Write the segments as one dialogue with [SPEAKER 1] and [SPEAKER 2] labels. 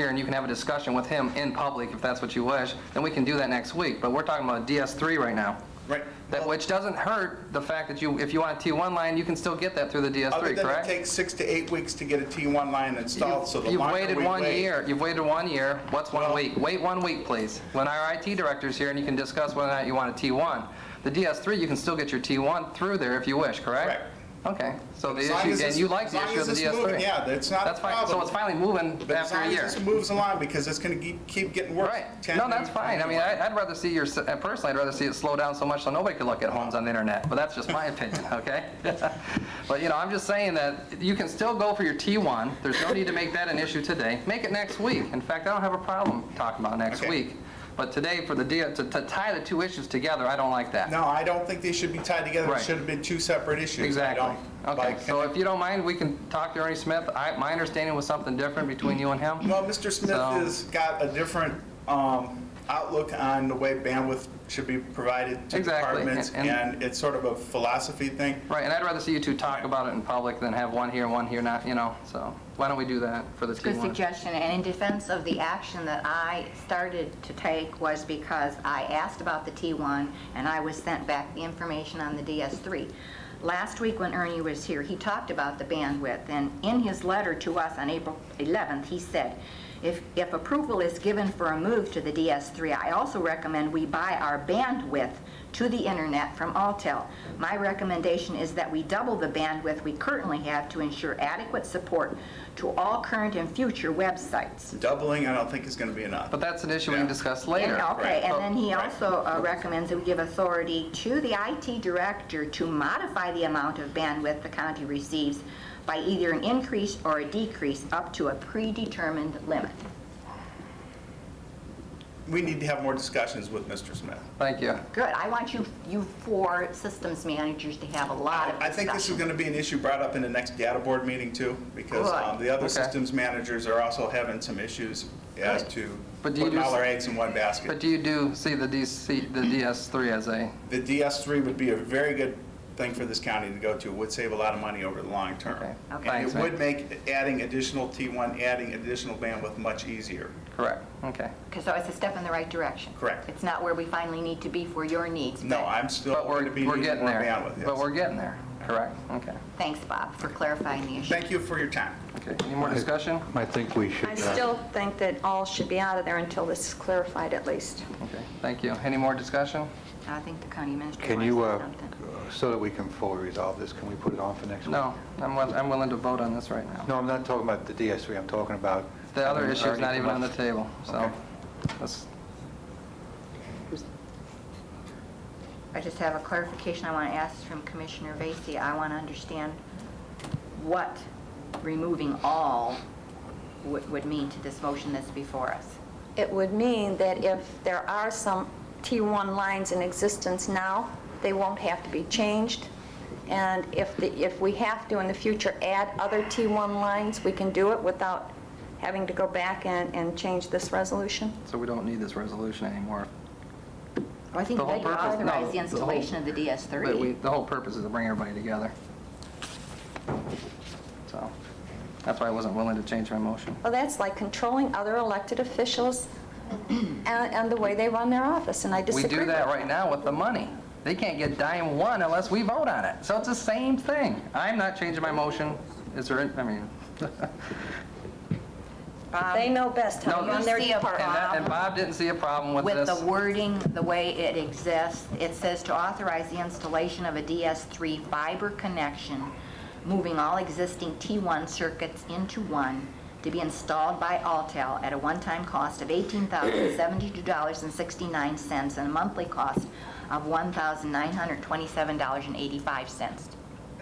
[SPEAKER 1] here and you can have a discussion with him in public if that's what you wish, then we can do that next week. But we're talking about DS3 right now.
[SPEAKER 2] Right.
[SPEAKER 1] That, which doesn't hurt the fact that you, if you want a T1 line, you can still get that through the
[SPEAKER 2] Other
[SPEAKER 1] DS3,
[SPEAKER 2] than it
[SPEAKER 1] correct?
[SPEAKER 2] takes six to eight weeks to get a T1 line installed, so the
[SPEAKER 1] You've
[SPEAKER 2] longer we wait...
[SPEAKER 1] waited one year, you've waited one year, what's one
[SPEAKER 2] Well-
[SPEAKER 1] week? Wait one week, please. When our IT director's here and you can discuss whether or not you want a T1. The DS3, you can still get your T1 through there if you wish, correct? Okay, so the
[SPEAKER 2] As long as
[SPEAKER 1] issue, and
[SPEAKER 2] it's-
[SPEAKER 1] you like
[SPEAKER 2] as
[SPEAKER 1] the
[SPEAKER 2] long
[SPEAKER 1] issue
[SPEAKER 2] as
[SPEAKER 1] of the
[SPEAKER 2] it's moving,
[SPEAKER 1] DS3.
[SPEAKER 2] Yeah, that's not a
[SPEAKER 1] That's fine,
[SPEAKER 2] problem.
[SPEAKER 1] so it's finally moving
[SPEAKER 2] But as
[SPEAKER 1] after a
[SPEAKER 2] long
[SPEAKER 1] year.
[SPEAKER 2] as this moves along, because it's going to keep getting worse.
[SPEAKER 1] Right.
[SPEAKER 2] 10
[SPEAKER 1] No, that's
[SPEAKER 2] new-
[SPEAKER 1] fine. I mean, I- I'd rather see your, s- uh, personally, I'd rather see it slow down so much so nobody could look at homes on the internet, but that's just my opinion, okay? But, you know, I'm just saying that you can still go for your T1. There's no need to make that an issue today. Make it next week. In fact, I don't have a problem talking about next
[SPEAKER 2] Okay.
[SPEAKER 1] week. But today, for the, deal to to tie the two issues together, I don't like that.
[SPEAKER 2] No, I don't think they should be tied together. It
[SPEAKER 1] Right.
[SPEAKER 2] should have been two separate issues. I
[SPEAKER 1] Exactly.
[SPEAKER 2] don't
[SPEAKER 1] Okay,
[SPEAKER 2] like-
[SPEAKER 1] so if you don't mind, we can talk to Ernie Smith. I- My understanding was something different between you and him.
[SPEAKER 2] Well, Mr. Smith
[SPEAKER 1] So-
[SPEAKER 2] has got a different um, outlook on the way bandwidth should be provided to
[SPEAKER 1] Exactly,
[SPEAKER 2] departments,
[SPEAKER 1] and- and-
[SPEAKER 2] and it's sort of a philosophy thing.
[SPEAKER 1] Right, and I'd rather see you two talk about it in public than have one here, one here, not, you know, so why don't we do that for the
[SPEAKER 3] Good
[SPEAKER 1] T1?
[SPEAKER 3] suggestion, and in defense of the action that I started to take was because I asked about the T1, and I was sent back the information on the DS3. Last week when Ernie was here, he talked about the bandwidth, and in his letter to us on April 11th, he said, "If if approval is given for a move to the DS3, I also recommend we buy our bandwidth to the internet from Altel. My recommendation is that we double the bandwidth we currently have to ensure adequate support to all current and future websites.
[SPEAKER 2] Doubling, I don't think is going to be enough.
[SPEAKER 1] But that's an issue we can
[SPEAKER 2] Yeah.
[SPEAKER 1] discuss
[SPEAKER 3] And-
[SPEAKER 1] later.
[SPEAKER 3] Okay, and then he
[SPEAKER 2] Right.
[SPEAKER 3] also uh, recommends that we give authority to the IT director to modify the amount of bandwidth the county receives by either an increase or a decrease up to a predetermined limit.
[SPEAKER 2] We need to have more discussions with Mr. Smith.
[SPEAKER 1] Thank you.
[SPEAKER 3] Good, I want you, you four systems managers to have a lot of
[SPEAKER 2] I think this is
[SPEAKER 3] discussion.
[SPEAKER 2] going to be an issue brought up in the next data board meeting too, because
[SPEAKER 3] Good.
[SPEAKER 2] um, the other
[SPEAKER 1] Okay.
[SPEAKER 2] systems managers are also having some issues as
[SPEAKER 3] Good.
[SPEAKER 2] to
[SPEAKER 1] But do you
[SPEAKER 2] putting all
[SPEAKER 1] just-
[SPEAKER 2] their eggs in one
[SPEAKER 1] But
[SPEAKER 2] basket.
[SPEAKER 1] do you do see the DC, the DS3 as a,
[SPEAKER 2] The DS3 would be a very good thing for this county to go to, It would save a lot of money over the long
[SPEAKER 1] Okay.
[SPEAKER 2] term.
[SPEAKER 3] Okay.
[SPEAKER 2] And
[SPEAKER 1] Thanks,
[SPEAKER 2] it
[SPEAKER 1] Matt.
[SPEAKER 2] would make adding additional T1, adding additional bandwidth much easier.
[SPEAKER 1] correct, okay.
[SPEAKER 3] 'Cause so it's a step in the right direction.
[SPEAKER 2] Correct.
[SPEAKER 3] It's not where we finally need to be for your needs.
[SPEAKER 2] No,
[SPEAKER 3] but
[SPEAKER 2] I'm still
[SPEAKER 1] But
[SPEAKER 2] going
[SPEAKER 1] we're,
[SPEAKER 2] to be
[SPEAKER 1] we're
[SPEAKER 2] needing
[SPEAKER 1] getting
[SPEAKER 2] more
[SPEAKER 1] there.
[SPEAKER 2] bandwidth. yes.
[SPEAKER 1] But we're getting there, correct, okay.
[SPEAKER 3] Thanks, Bob, for clarifying the issue.
[SPEAKER 2] Thank you for your time.
[SPEAKER 1] Okay, any more discussion?
[SPEAKER 4] I think we should.
[SPEAKER 5] I
[SPEAKER 4] uh,
[SPEAKER 5] still think that all should be out of there until this is clarified at least.
[SPEAKER 1] Okay, thank you. Any more discussion?
[SPEAKER 3] I think the county administrator
[SPEAKER 4] Can
[SPEAKER 3] wants to
[SPEAKER 4] you,
[SPEAKER 3] say
[SPEAKER 4] uh,
[SPEAKER 3] something.
[SPEAKER 4] so that we can fully resolve this, can we put it on for next week?
[SPEAKER 1] No, I'm, wi- I'm willing to vote on this right now.
[SPEAKER 4] No, I'm not talking about the DS3, I'm talking about...
[SPEAKER 1] The other issue is
[SPEAKER 4] Already
[SPEAKER 1] not even on the
[SPEAKER 4] come up.
[SPEAKER 1] table, so
[SPEAKER 4] Okay.
[SPEAKER 1] let's,
[SPEAKER 3] I just have a clarification I want to ask from Commissioner Vacy. I want to understand what removing all would would mean to this motion that's before us.
[SPEAKER 5] It would mean that if there are some T1 lines in existence now, they won't have to be changed. And if, the if we have to in the future add other T1 lines, we can do it without having to go back and, and change this resolution.
[SPEAKER 1] so we don't need this resolution anymore.
[SPEAKER 3] I think
[SPEAKER 1] The
[SPEAKER 3] we
[SPEAKER 1] whole purpose- no,
[SPEAKER 3] authorize the
[SPEAKER 1] the whole-
[SPEAKER 3] installation of the
[SPEAKER 1] But we,
[SPEAKER 3] DS3.
[SPEAKER 1] the whole purpose is to bring everybody together. So, that's why I wasn't willing to change my motion.
[SPEAKER 5] Well, that's like controlling other elected officials and, and the way they run their office, and I
[SPEAKER 1] We
[SPEAKER 5] disagree
[SPEAKER 1] do
[SPEAKER 5] with
[SPEAKER 1] that right now with the money. They can't get dime one unless we vote on it. So it's the same thing. I'm not changing my motion. Is there, an- I mean,
[SPEAKER 3] Bob,
[SPEAKER 5] They know best how
[SPEAKER 1] No,
[SPEAKER 5] to run their
[SPEAKER 3] you see a
[SPEAKER 5] department.
[SPEAKER 1] and that- and Bob didn't see a problem with
[SPEAKER 3] With
[SPEAKER 1] this.
[SPEAKER 3] the wording, the way it exists, it says to authorize the installation of a DS3 fiber connection, moving all existing T1 circuits into one, to be installed by Altel at a one-time cost of $18,072.69 and a monthly cost of $1,927.85.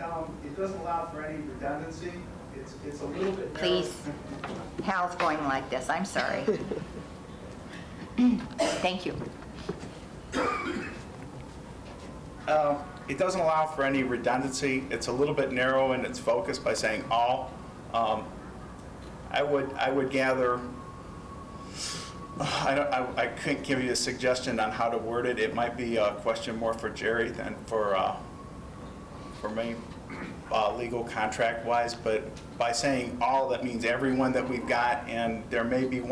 [SPEAKER 6] Um, It doesn't allow for any redundancy. It's, it's a little bit narrow.
[SPEAKER 3] Please, Hal's going like this, I'm sorry. Thank you.
[SPEAKER 2] Uh, It doesn't allow for any redundancy. It's a little bit narrow in its focus by saying all. Um, I would, I would gather, I don't, I- I couldn't give you a suggestion on how to word it. It might be a question more for Jerry than for, uh, for me, uh, legal contract-wise, but by saying all, that means everyone that we've got, and there may be